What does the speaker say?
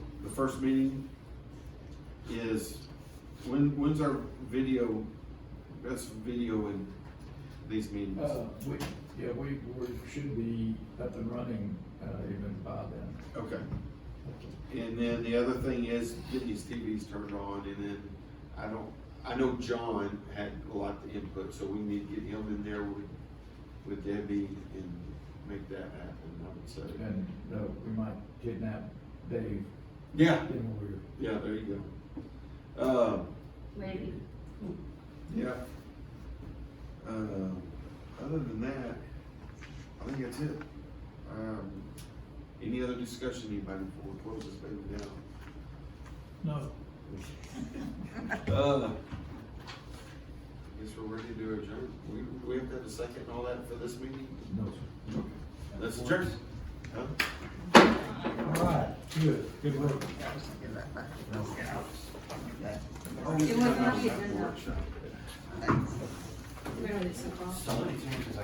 first meeting is, when, when's our video, that's video in these meetings? Uh, we, yeah, we, we should be up and running, uh, even by then. Okay. And then the other thing is getting these TVs turned on and then I don't, I know John had a lot of input, so we need to get him in there with, with Debbie and make that happen, I would say. And, uh, we might kidnap Dave, Yeah, you know, we're, yeah, there you go. Uh, Maybe. yeah. Um, other than that, I think that's it. Um, any other discussion anybody before we close this baby down? No, Uh, Guess we're ready to adjourn. We, we have to have a second and all that for this meeting? no, sir. Let's adjourn. Huh? All right, good, good work. It wasn't on the agenda. Really, so far. So many changes I